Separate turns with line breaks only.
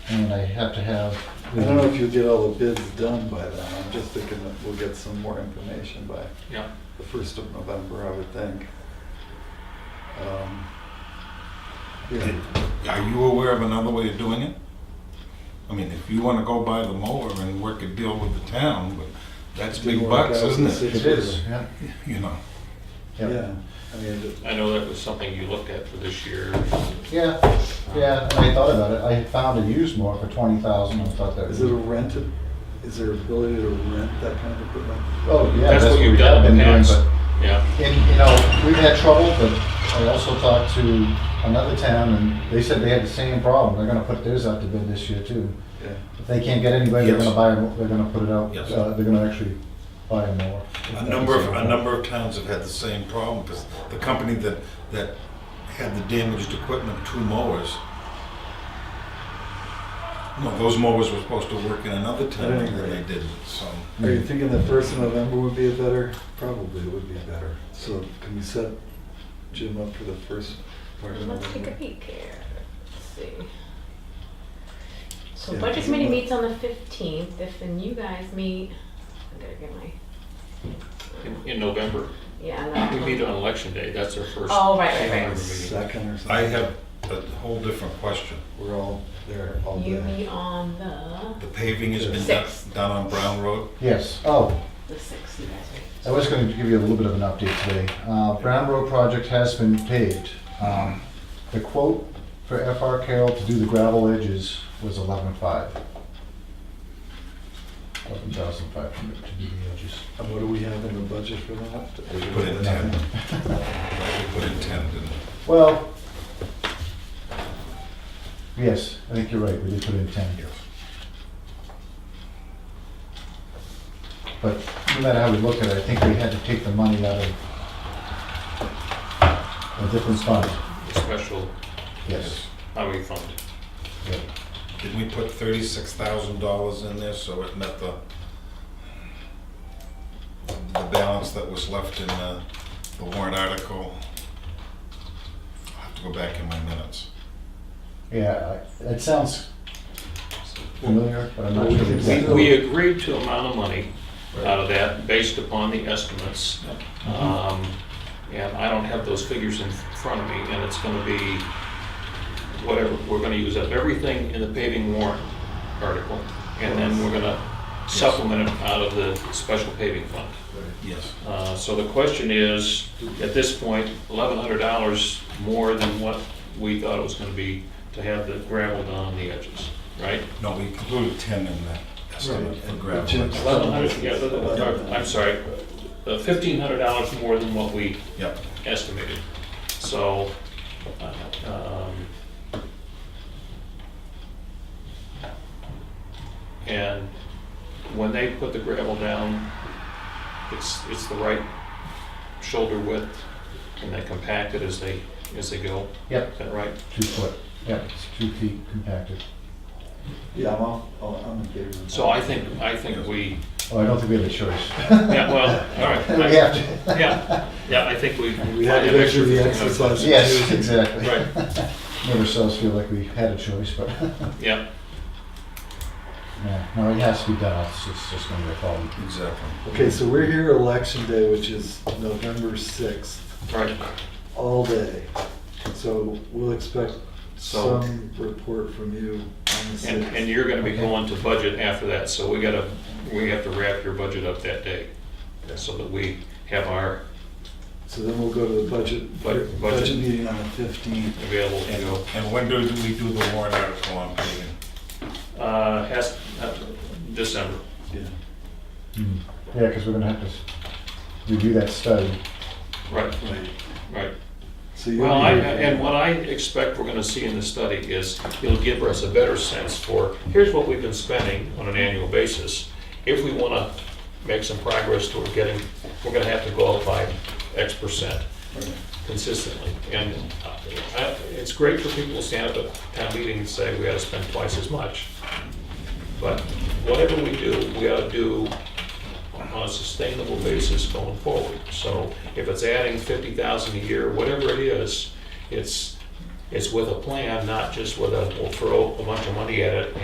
and I have to have.
I don't know if you'll get all the bids done by then. I'm just thinking that we'll get some more information by
Yeah.
the first of November, I would think. Um, Yeah,
Are you aware of another way of doing it? I mean, if you want to go buy the mower and work a deal with the town, but that's big
Didn't work
bucks,
out
isn't
since
it?
It is, yeah,
You know,
yeah.
yeah. I mean, it-
I know that was something you looked at for this year.
Yeah, yeah, and I thought about it, I found a used mower for twenty thousand, I thought that.
is it a rented, is there ability to rent that kind of equipment?
Oh, yeah.
That's what
we
you've
have
done in
been
the
doing,
past.
but
Yeah,
And, you know, we've had trouble, but I also talked to another town and they said they had the same problem. They're gonna put theirs out to bid this year too.
Yeah.
If they can't get anybody, they're
Yes.
gonna buy, a- they're gonna put it out,
Yes.
uh, they're gonna actually buy a mower.
a number of, a number of towns have had the same problem because the company that, that had the damaged equipment, two mowers. No, those mowers were supposed to work in another town and then they didn't, so.
Are you thinking the first of November would be a better? Probably would be better. So can you set Jim up for the first part of
Let's take a
November?
peek here. Let's see. So
Yeah,
budget
it's
committee
about-
meets on the fifteenth, if then you guys meet, I gotta get my,
in- in November.
yeah. that
We
one.
meet on election day, that's our first.
Oh, right, right,
November meeting.
right.
Second or something?
I have a whole different question.
We're all there all
You
day.
meet on the,
The paving has been done,
Six.
done on Brown Road.
Yes, oh,
the sixth, you guys meet.
I was going to give you a little bit of an update today. Uh, Brown Road project has been paved. Um, The quote for FR Carroll to do the gravel edges was eleven-five. Eleven thousand five hundred to do the edges.
And what do we have in the budget for that?
Put in ten. We Put in ten, didn't we?
Well, yes, I think you're right, we did put in ten here. But no matter how we look at it, I think we had to take the money out of a different fund,
The Special
yes.
highway fund.
yeah.
Did we put thirty-six thousand dollars in there so it met the, the balance that was left in the, the warrant article? I'll have to go back in my minutes.
Yeah, I- it sounds familiar, but I'm not
We
sure.
can-
We,
exactly.
we agreed to amount of money out of that based upon the estimates.
Mm-hmm.
Um, And I don't have those figures in front of me, and it's gonna be whatever, we're gonna use up everything in the paving warrant article, and then we're gonna supplement it out of the special paving fund.
Yes.
Uh, So the question is, at this point, eleven hundred dollars more than what we thought it was gonna be to have the gravel done on the edges, right?
No, we included ten in that estimate for
Right. Jim's-
gravel.
Eleven hundred, yeah, the- the- I'm sorry, uh, fifteen hundred dollars more than what we
Yep.
estimated. So, uh, um, and when they put the gravel down, it's, it's the right shoulder width, and they compact it as they, as they go.
Yep,
Is that right?
two foot, yep, it's two feet compacted.
Yeah, I'm all, oh, I'm in favor of that.
So I think, I think we,
Oh, I don't think we have a choice.
yeah, well, all right.
We have to.
Yeah, yeah, I think we.
We had to go through the exercise.
Yes, exactly.
Right,
Never saw us feel like we had a choice, but,
yeah.
yeah, no, it has to be done, it's, it's just gonna be a problem.
Exactly.
Okay, so we're here election day, which is November sixth,
Right,
all day. So we'll expect
So-
some report from you on the
and,
sixth.
and you're gonna be going to budget after that, so we gotta, we have to wrap your budget up that day, so that we have our
So then we'll go to the budget,
Budget.
budget meeting on the fifteenth.
available, you
And,
know.
and when do we do the warrant article on paving?
Uh, has, uh, December,
Yeah.
Hmm. Yeah, because we're gonna have to s- review that study.
right,
Right.
right.
So you'll
Well,
be
I,
here.
and what I expect we're gonna see in the study is, it'll give us a better sense for, here's what we've been spending on an annual basis. If we wanna make some progress toward getting, we're gonna have to go up by X percent. consistently. And uh, I- it's great for people to stand up at town meeting and say, we ought to spend twice as much. But whatever we do, we ought to do on a sustainable basis going forward. So if it's adding fifty thousand a year, whatever it is, it's, it's with a plan, not just with a, we'll throw a bunch of money at it